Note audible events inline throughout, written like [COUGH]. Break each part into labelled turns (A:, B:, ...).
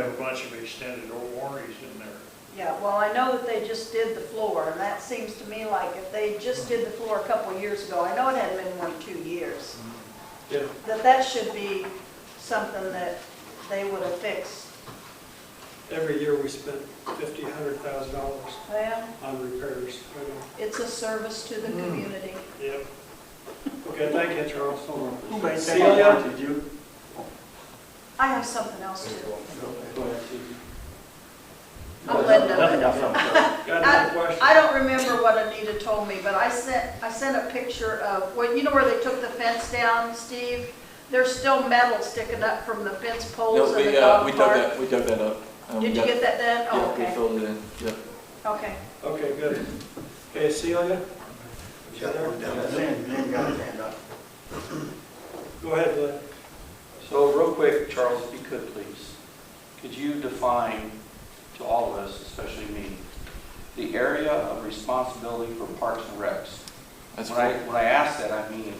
A: a bunch of extended warranties in there.
B: Yeah, well, I know that they just did the floor, and that seems to me like if they just did the floor a couple of years ago, I know it hadn't been more than two years,
C: Yeah,
B: that that should be something that they would have fixed.
C: every year we spend fifty, hundred thousand dollars
B: Well,
C: on repairs. right now.
B: it's a service to the community.
C: Yep. Okay, thank you, Charles.
D: Who makes that
C: Celia?
D: Did you?
B: I have something else too.
C: Go ahead, Susan.
B: I'm Linda.
D: Nothing else, I'm sorry.
C: Got another question?
B: I don't remember what Anita told me, but I sent, I sent a picture of, well, you know where they took the fence down, Steve? There's still metal sticking up from the fence poles
E: No,
B: in the
E: we, uh,
B: dog
E: we dug
B: park.
E: that, we dug that up. and we
B: Did you
E: got-
B: get that done? Oh,
E: Yeah, we
B: okay,
E: filled it in, yeah.
B: okay.
C: Okay, good. Okay, Celia,
D: Lynn, Lynn got his hand up.
C: go ahead, Lynn.
F: So real quick, Charles, if you could please, could you define to all of us, especially me, the area of responsibility for parks and recs?
E: That's
F: When I,
E: cool.
F: when I ask that, I mean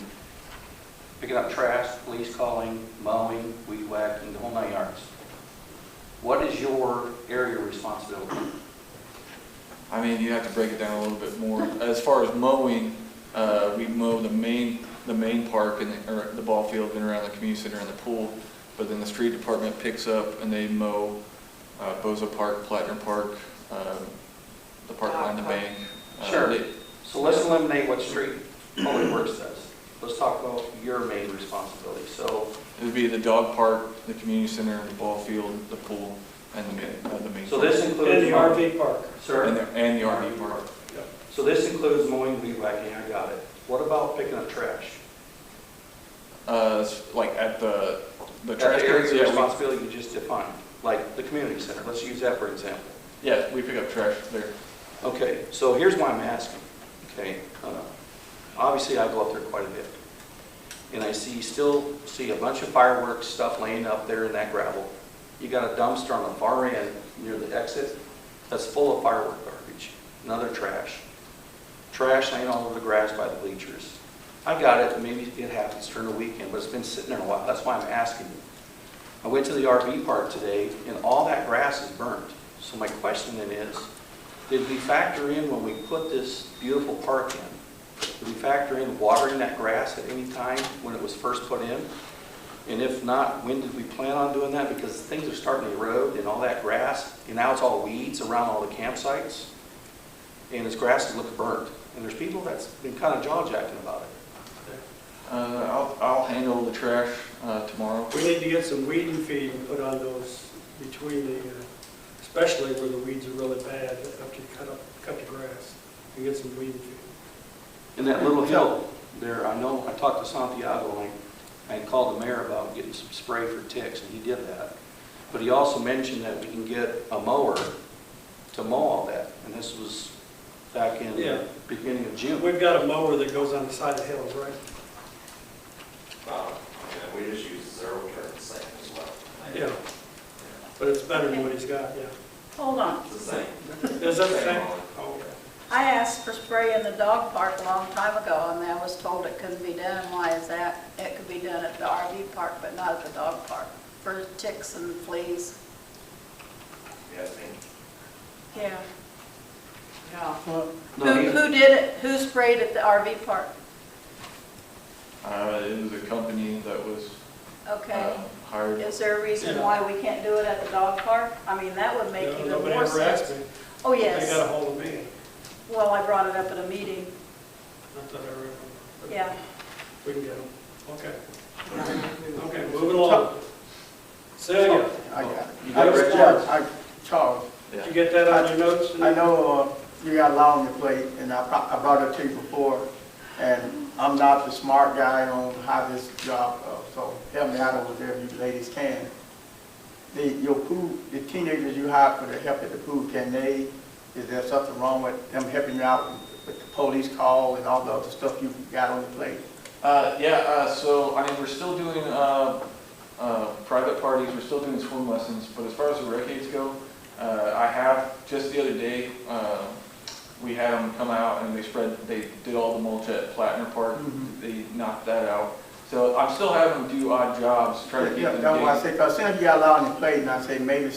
F: picking up trash, police calling, mowing, weed whacking, the whole nine yards. What is your area of responsibility?
E: I mean, you have to break it down a little bit more. As far as mowing, uh, we mow the main, the main park and, the- or the ball field and around the community center and the pool. But then the street department picks up and they mow, uh, Bozo Park, Platinum Park, um, the park line, the bank. Uh,
F: Sure.
E: they-
F: So let's eliminate what street public works does. Let's talk about your main responsibility. So,
E: It would be the dog park, the community center, the ball field, the pool, and the main, uh, the main.
F: so this includes.
C: In the RV park.
F: Sir?
E: And the, and the RV park.
F: So this includes mowing, weed whacking, I got it. What about picking up trash?
E: Uh, it's like at the, the
F: That area
E: trash cans,
F: of
E: yeah,
F: Responsibility you just defined, like the community center, let's use that for example.
E: we, yeah, we pick up trash there.
F: Okay, so here's why I'm asking, okay? uh, Obviously, I go up there quite a bit, and I see, still see a bunch of fireworks stuff laying up there in that gravel. You got a dumpster on the far end near the exit that's full of firework garbage and other trash. Trash laying all over the grass by the bleachers. I got it, maybe it happens during the weekend, but it's been sitting there a while, that's why I'm asking you. I went to the RV park today, and all that grass is burnt. So my question then is, did we factor in when we put this beautiful park in? Did we factor in watering that grass at any time when it was first put in? And if not, when did we plan on doing that? Because things are starting to erode and all that grass, and now it's all weeds around all the campsites. And this grass looks burnt, and there's people that's been kind of jaw-jacking about it.
E: Uh, I'll, I'll handle the trash, uh, tomorrow.
C: We need to get some weed and feed and put on those between the, uh, especially where the weeds are really bad, after you cut up, cut the grass, and get some weed and feed.
F: And that little hill there, I know, I talked to Santiago, and I I called the mayor about getting some spray for ticks, and he did that. But he also mentioned that we can get a mower to mow all that, and this was back in
C: Yeah.
F: the beginning of June.
C: We've got a mower that goes on the side of hills, right?
G: Uh, yeah, we just use zero turn sand as well.
C: Yeah. But it's better than what he's got,
G: [LAUGHS]
C: yeah.
B: Hold on.
G: It's the same.
C: Is that the
G: Same
C: same?
G: on.
C: Oh,
B: I asked for spray in the dog park a long time ago, and I was told it couldn't be done. Why is that? It could be done at the RV park, but not at the dog park, for ticks and fleas.
G: Yeah, I think
B: Yeah. Yeah. Who,
F: No, he-
B: who did it? Who sprayed at the RV park?
E: Uh, it was a company that was,
B: Okay.
E: uh, hired.
B: Is there a reason why we can't do it at the dog park? I mean, that would make
C: no,
B: even
C: Nobody
B: more
C: ever asked
B: sense.
C: me.
B: Oh,
C: They got
B: yes.
C: ahold of me,
B: Well, I brought it up at a meeting.
C: not that I remember. But
B: Yeah.
C: We can get them, okay. Okay, moving along. Celia,
D: I got it.
F: You got it, Rich?
D: I, Charles,
C: did you get that on your notes?
D: I know uh, you got a lot on your plate, and I pro- I brought it to you before, and I'm not the smart guy on how this job, uh, so help me out over there if you ladies can. The, your pool, the teenagers you hired for the help at the pool, can they, is there something wrong with them helping you out with the police call and all the other stuff you got on your plate?
E: Uh, yeah, uh, so, I mean, we're still doing, uh, uh, private parties, we're still doing swim lessons, but as far as the records go, uh, I have, just the other day, uh, we had them come out and they spread, they did all the mulch at Platinum Park,
D: Mhm.
E: they knocked that out. So I'm still having them do odd jobs, trying to keep
D: Yeah,
E: them
D: that's why I
E: engaged.
D: say, because soon as you got a lot on your plate, and I say, maybe